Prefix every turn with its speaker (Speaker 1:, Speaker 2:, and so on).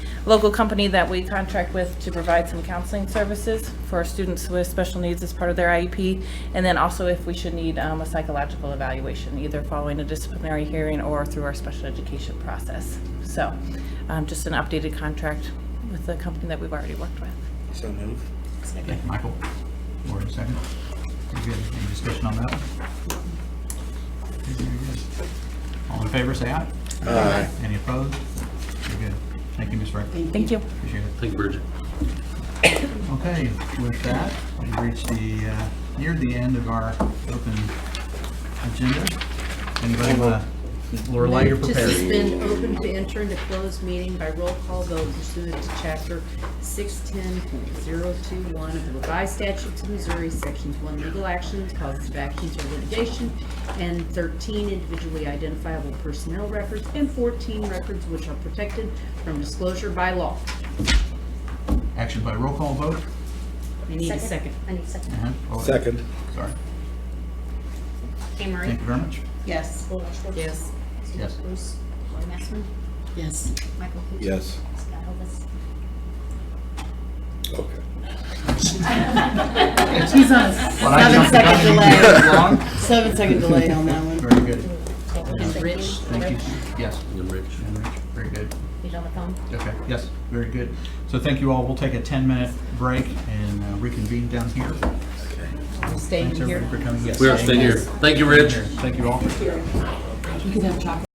Speaker 1: local company that we contract with to provide some counseling services for our students with special needs as part of their IEP. And then also if we should need um, a psychological evaluation, either following a disciplinary hearing or through our special education process. So um, just an updated contract with the company that we've already worked with.
Speaker 2: So move.
Speaker 3: Thank you, Michael. Lori, second. Very good. Any discussion on that? Very good. All in favor, say aye.
Speaker 2: Aye.
Speaker 3: Any opposed? Very good. Thank you, Ms. Frank.
Speaker 1: Thank you.
Speaker 3: Appreciate it.
Speaker 4: Thank you, Bridget.
Speaker 3: Okay, with that, we've reached the, uh, near the end of our open agenda. Anybody want to, Lorelei, you're
Speaker 5: To
Speaker 3: prepared.
Speaker 5: suspend open to enter into closed meeting by roll call vote pursuant to chapter six ten point zero two one of the revised statutes of Missouri, sections one, legal actions, causes of actions or litigation, and thirteen, individually identifiable personnel records, and fourteen, records which are protected from disclosure by law.
Speaker 3: Action by roll call vote.
Speaker 5: I need a second.
Speaker 6: I need a second.
Speaker 3: Uh-huh. Oh,
Speaker 2: Second.
Speaker 3: Sorry.
Speaker 6: Anne Marie?
Speaker 3: Thank you very much.
Speaker 5: Yes.
Speaker 6: Laura Schwartz?
Speaker 5: Yes.
Speaker 6: Susie
Speaker 3: Yes.
Speaker 6: Bruce? Lori Massman?
Speaker 5: Yes.
Speaker 6: Michael Cooper?
Speaker 2: Yes.
Speaker 6: Scott Elvis?
Speaker 2: Okay.
Speaker 7: She's on a
Speaker 3: Well, I
Speaker 7: seven
Speaker 3: jumped the gun
Speaker 7: second
Speaker 3: and you
Speaker 7: delay,
Speaker 3: did it wrong.
Speaker 7: seven second delay on that one.
Speaker 3: Very good.
Speaker 6: Thank
Speaker 5: Rich.
Speaker 6: you.
Speaker 3: Thank you. Yes.
Speaker 4: And Rich.
Speaker 3: And Rich, Very good.
Speaker 6: He's on the phone.
Speaker 3: Okay, yes, very good. So thank you all. We'll take a 10-minute break and uh, reconvene down here.
Speaker 5: I'm staying
Speaker 3: Thanks
Speaker 5: here.
Speaker 3: everybody for coming. Yes,
Speaker 4: We are staying here. Thank you, Rich.
Speaker 3: Thank you all.